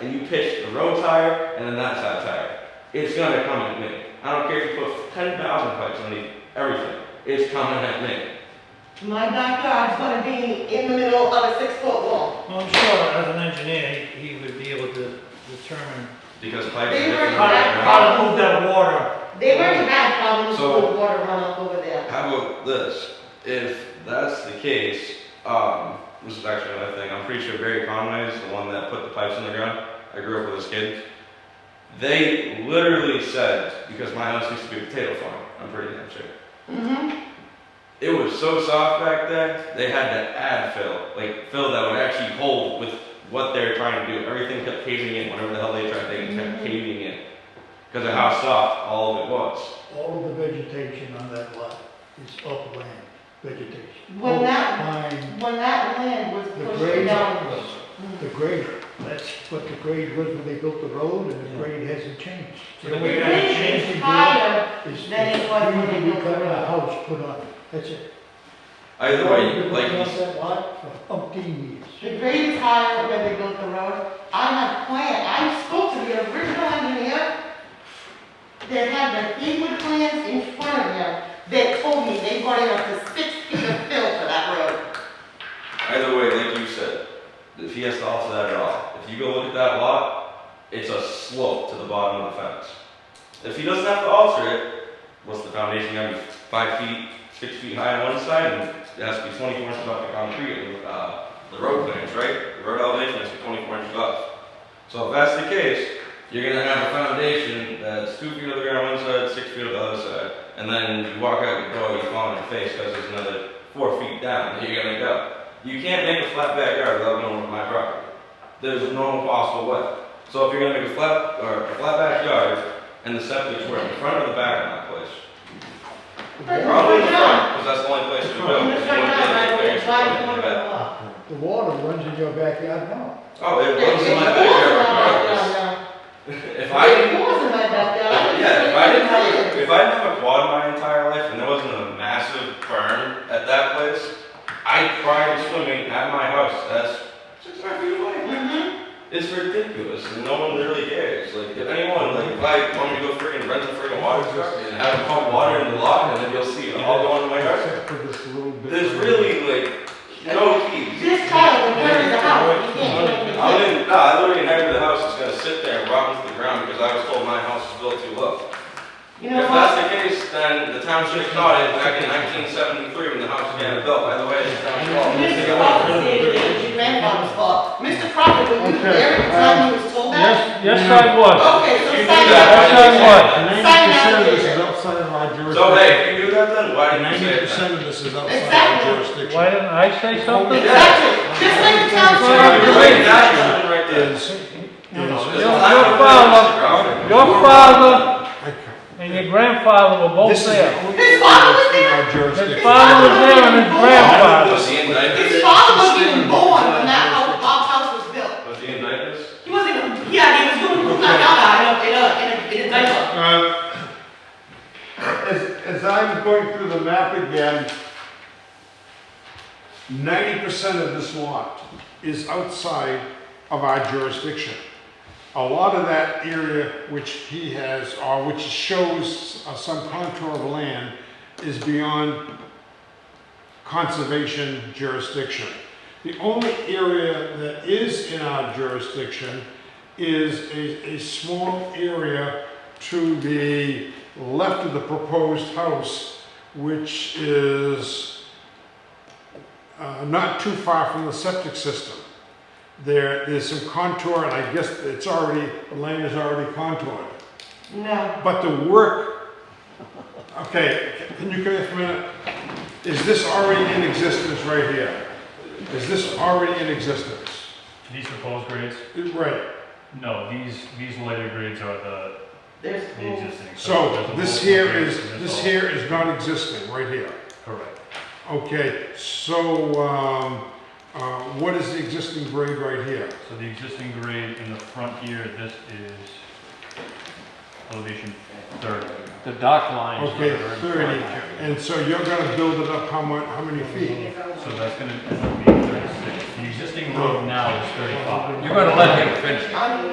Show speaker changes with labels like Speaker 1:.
Speaker 1: and you pitch a road tire and an outside tire, it's gonna come at me. I don't care if you put ten thousand pipes underneath everything, it's coming at me.
Speaker 2: My backyard's gonna be in the middle of a six-foot wall.
Speaker 3: Well, I'm sure as an engineer, he he would be able to determine
Speaker 1: Because pipes are
Speaker 2: They were
Speaker 1: different.
Speaker 2: correct.
Speaker 3: how to move that water.
Speaker 2: They already had problems
Speaker 1: So-
Speaker 2: with water runoff over there.
Speaker 1: How about this? If that's the case, um, this is actually another thing. I'm pretty sure Barry Conway is the one that put the pipes in the ground. I grew up with this kid. They literally said, because my house used to be a potato farm, I'm pretty damn sure.
Speaker 2: Mm-hmm.
Speaker 1: It was so soft back then, they had to add fill. Like, fill that would actually hold with what they're trying to do. Everything kept caving in, whatever the hell they tried, they kept caving in. Because of how soft all of it was.
Speaker 4: All of the vegetation on that lot is upland vegetation.
Speaker 2: Well, that-
Speaker 4: Pine,
Speaker 2: When that land was
Speaker 4: the
Speaker 2: pushed
Speaker 4: grade,
Speaker 2: down. Mm-hmm.
Speaker 4: the grade, that's what the grade was when they built the road, and
Speaker 1: Yeah.
Speaker 4: the grade hasn't changed.
Speaker 3: So
Speaker 4: The
Speaker 3: they
Speaker 4: only
Speaker 3: gotta
Speaker 4: thing
Speaker 3: change
Speaker 2: It
Speaker 4: changed
Speaker 2: is
Speaker 4: is
Speaker 2: higher,
Speaker 4: is
Speaker 2: than it was when they
Speaker 4: you
Speaker 2: built the
Speaker 4: got a
Speaker 2: road.
Speaker 4: house put on, it. that's it.
Speaker 1: Either
Speaker 4: They've
Speaker 1: way,
Speaker 4: been
Speaker 1: like,
Speaker 4: working
Speaker 1: you
Speaker 4: on that lot for umpteen years.
Speaker 2: the grade is higher where they built the road. I have plan, I spoke to the original engineer that had the Eagle plans in front of him. They told me they brought in up to six feet of fill for that road.
Speaker 1: Either way, like you said, if he has to offset it off, if you go look at that lot, it's a slope to the bottom of the fence. If he doesn't have to alter it, what's the foundation gonna be five feet, six feet high on one side, and it has to be twenty-four inches off the concrete, and, uh, the road plans, right? The road elevation has to be twenty-four inches off. So if that's the case, you're gonna have a foundation that's two feet of the ground on one side, six feet of the other side, and then you walk out your door, you fall on your face, cause there's another four feet down, and you're gonna go. You can't make a flat backyard without knowing my property. There's no possible way. So if you're gonna make a flat, or a flat backyard, and the septic's were in front or the back of my place?
Speaker 2: But-
Speaker 1: Probably in the front, because that's the only place to go.
Speaker 2: And it's right now, right, where it's right in front of the
Speaker 1: Yeah.
Speaker 2: wall.
Speaker 4: The water runs in your backyard now.
Speaker 1: Oh, it
Speaker 2: It
Speaker 1: was in my backyard
Speaker 2: was
Speaker 1: regardless. If I didn't,
Speaker 2: in my backyard.
Speaker 1: yeah, if I didn't have, if I didn't have a quad my entire life and there wasn't a massive berm at that place, I cried swimming at my house, that's six hundred feet away.
Speaker 2: Mhm.
Speaker 1: It's ridiculous. and No one really cares. Like, if anyone, like, if I want to go friggin' rent a friggin' water truck and have it pump water in the lot, and then you'll see it all going to my yard.
Speaker 4: Except for this little bit.
Speaker 1: There's really, like, no keys.
Speaker 2: This child, the parents, the house, you can't do anything.
Speaker 1: I didn't, nah, I literally inherited the house. It's gonna sit there and rot into the ground because I was told my house was built too low.
Speaker 2: You know
Speaker 1: If that's
Speaker 2: what?
Speaker 1: the case, then the town should have caught it back in nineteen seventy-three when the house was getting built. By the way, it's town's fault. They
Speaker 2: Mr.
Speaker 1: got-
Speaker 2: Crawford said it was your grandfather's fault. Mr. Crawford, were you there at the time he was told that?
Speaker 5: Yes, yes, I was.
Speaker 2: Okay,
Speaker 1: You
Speaker 2: so
Speaker 1: do
Speaker 2: sign
Speaker 1: that,
Speaker 2: that.
Speaker 5: Yes, I
Speaker 1: why
Speaker 5: was.
Speaker 1: did you say that?
Speaker 2: Sign that.
Speaker 5: Ninety percent of this is outside of my jurisdiction.
Speaker 1: So hey, if you do that then, why didn't you say
Speaker 5: Ninety
Speaker 1: that?
Speaker 5: percent of this is outside my
Speaker 2: Exactly.
Speaker 5: jurisdiction.
Speaker 3: Why didn't I say something?
Speaker 2: Exactly, just like the
Speaker 1: You're
Speaker 2: town's
Speaker 1: right, that's something right there.
Speaker 5: Is-
Speaker 1: Your
Speaker 5: is-
Speaker 3: Your father, your father and your grandfather were both
Speaker 5: This is
Speaker 3: there.
Speaker 5: the only
Speaker 2: His father was
Speaker 5: thing
Speaker 2: there?
Speaker 5: in our jurisdiction.
Speaker 3: His father was there and his grandfather.
Speaker 1: Was he indicted?
Speaker 2: His father wasn't even born when that house, Bob's house was built.
Speaker 1: Was he indicted?
Speaker 2: He wasn't even, yeah, he was doing, he was not out, in a, in a, in a, diaper.
Speaker 6: Uh, As, as I'm going through the map again, ninety percent of this lot is outside of our jurisdiction. A lot of that area which he has, or which shows uh, some contour of land, is beyond conservation jurisdiction. The only area that is in our jurisdiction is a, a small area to the left of the proposed house, which is uh, not too far from the septic system. There, there's some contour, and I guess it's already, the land is already contoured.
Speaker 2: No,
Speaker 6: But the work, okay, can you come here for a minute? Is this already in existence right here? Is this already in existence?
Speaker 7: These proposed grades?
Speaker 6: Right,
Speaker 7: No, these, these later grades are the,
Speaker 2: there's,
Speaker 7: the existing.
Speaker 6: so
Speaker 7: there's a
Speaker 6: this
Speaker 7: whole
Speaker 6: here
Speaker 7: grade
Speaker 6: is,
Speaker 7: and
Speaker 6: this
Speaker 7: it's all-
Speaker 6: here is not existing, right here.
Speaker 7: Correct.
Speaker 6: Okay, so, um, uh, what is the existing grade right here?
Speaker 7: So the existing grade in the front here, this is elevation thirty.
Speaker 5: The dock lines.
Speaker 6: Okay,
Speaker 5: are in front.
Speaker 6: thirty, and so you're gonna build it up how much, how many feet?
Speaker 7: So that's gonna end up being thirty-six. The existing road now is thirty-five.
Speaker 5: You're gonna let him finish.
Speaker 2: I'm